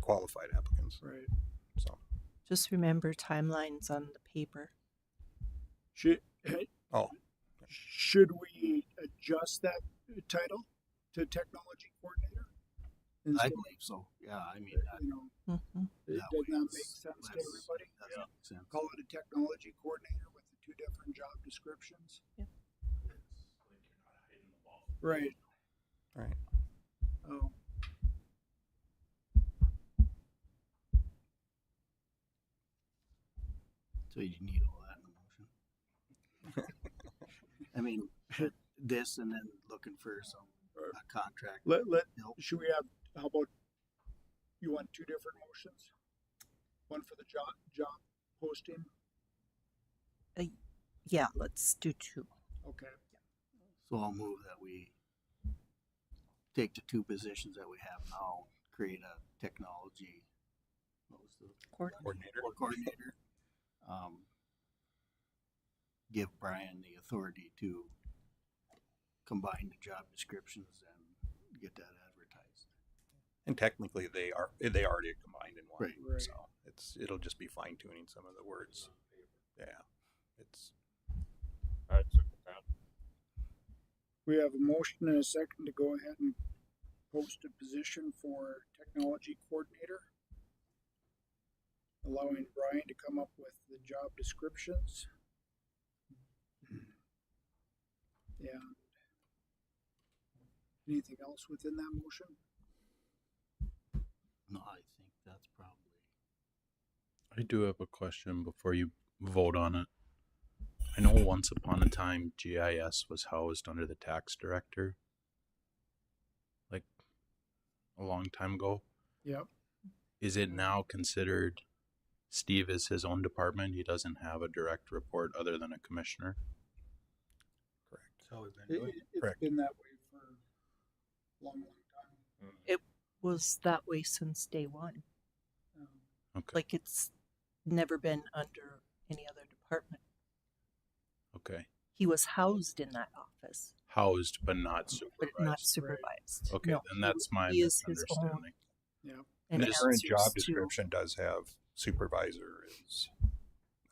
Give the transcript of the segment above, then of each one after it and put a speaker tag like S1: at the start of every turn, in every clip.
S1: qualified applicants.
S2: Right.
S1: So
S3: Just remember timelines on the paper.
S2: Should,
S1: Oh.
S2: should we adjust that title to technology coordinator?
S4: I
S2: Instead of,
S4: believe so. Yeah, I mean, that,
S2: you know,
S3: hmm
S2: does that
S4: that way
S2: not make
S4: it's
S2: sense to
S4: less-
S2: everybody?
S4: doesn't make sense.
S2: Call it a technology coordinator with the two different job descriptions?
S3: Yeah.
S2: Right.
S1: Right.
S2: Oh,
S4: So you need all that in the motion. I mean, this and then looking for some a contract.
S2: let, let,
S4: Nope.
S2: should we have, how about, you want two different motions? One for the job, job posting?
S3: Yeah, let's do two.
S2: Okay.
S4: So I'll move that we take the two positions that we have now, create a technology. What was the
S3: Coordinator.
S1: coordinator.
S4: or coordinator. Um, give Brian the authority to combine the job descriptions and get that advertised.
S1: And technically, they are they already combined in one.
S4: Right.
S2: Right.
S1: So it's it'll just be fine tuning some of the words. Yeah, it's
S2: We have a motion and a second to go ahead and post a position for technology coordinator. Allowing Brian to come up with the job descriptions. Yeah. Anything else within that motion?
S4: No, I think that's probably.
S5: I do have a question before you vote on it. I know once upon a time GIS was housed under the tax director, like a long time ago.
S2: Yep.
S5: Is it now considered Steve is his own department? He doesn't have a direct report other than a commissioner?
S1: correct. So
S2: It, it, has
S1: Correct.
S2: been that way for a long, long time.
S3: Was that way since day one.
S2: Um,
S5: Okay.
S3: Like it's never been under any other department.
S5: Okay.
S3: He was housed in that office,
S5: Housed but not
S3: but not
S5: supervised.
S3: supervised.
S5: Okay,
S3: No,
S5: then that's my
S3: he is his own
S5: misunderstanding.
S1: And the current
S3: answers
S1: job
S3: to-
S1: description does have supervisor is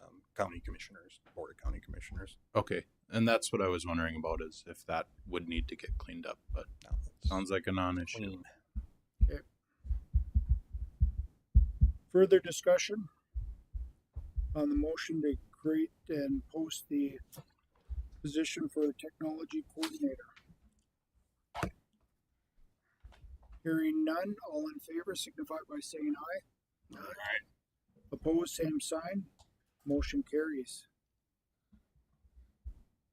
S1: um, county commissioners, board of county commissioners.
S5: Okay, and that's what I was wondering about is if that would need to get cleaned up, but
S1: No, it's
S5: sounds like a non-issue.
S1: clean.
S2: Further discussion on the motion to create and post the position for technology coordinator. Hearing none, all in favor signify by saying aye. Aye. Opposed, same sign. Motion carries.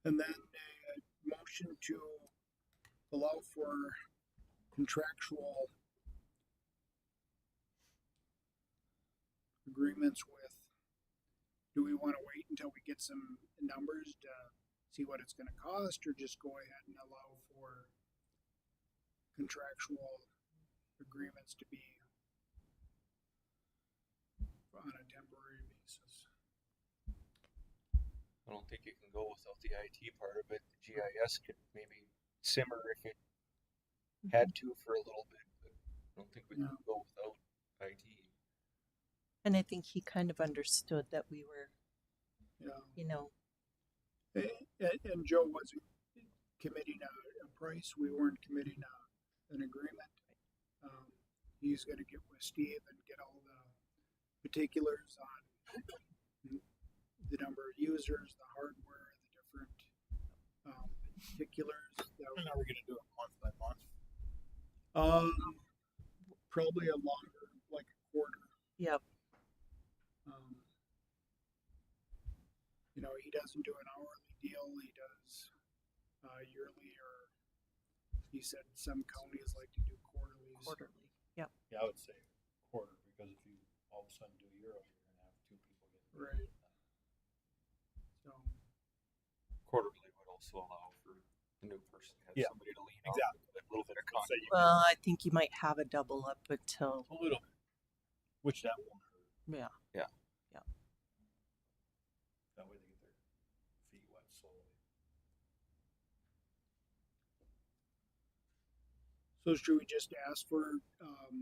S2: And then a motion to allow for contractual agreements with. Do we want to wait until we get some numbers to see what it's going to cost, or just go ahead and allow for contractual agreements to be on a temporary basis?
S6: I don't think it can go without the IT part of it. The GIS could maybe simmer if it had to for a little bit, but I don't think we can go without IT.
S3: And I think he kind of understood that we were,
S2: Yeah.
S3: you know,
S2: And, and Joe wasn't committing a, a price. We weren't committing a, an agreement. Um, he's going to get with Steve and get all the particulars on the number of users, the hardware, the different um, particulars. That
S4: And are we gonna do it month by month?
S2: um, probably a longer, like a quarter.
S3: Yep.
S2: Um, you know, he doesn't do an hourly deal. He does uh, yearly, or he said some counties like to do quarterlies.
S3: quarterly. Yep.
S7: Yeah, I would say quarter, because if you all of a sudden do Euro, you're gonna have two people get.
S2: Right. So,
S6: Quarterly would also allow for the new person to have
S7: Yeah,
S6: somebody to lean exactly. on with a little bit of
S7: Say
S6: content.
S7: you-
S3: Well, I think you might have a double up until,
S7: A little bit, which that won't hurt,
S3: yeah.
S7: that way they get their feet wet slowly.
S2: so should we just ask for um,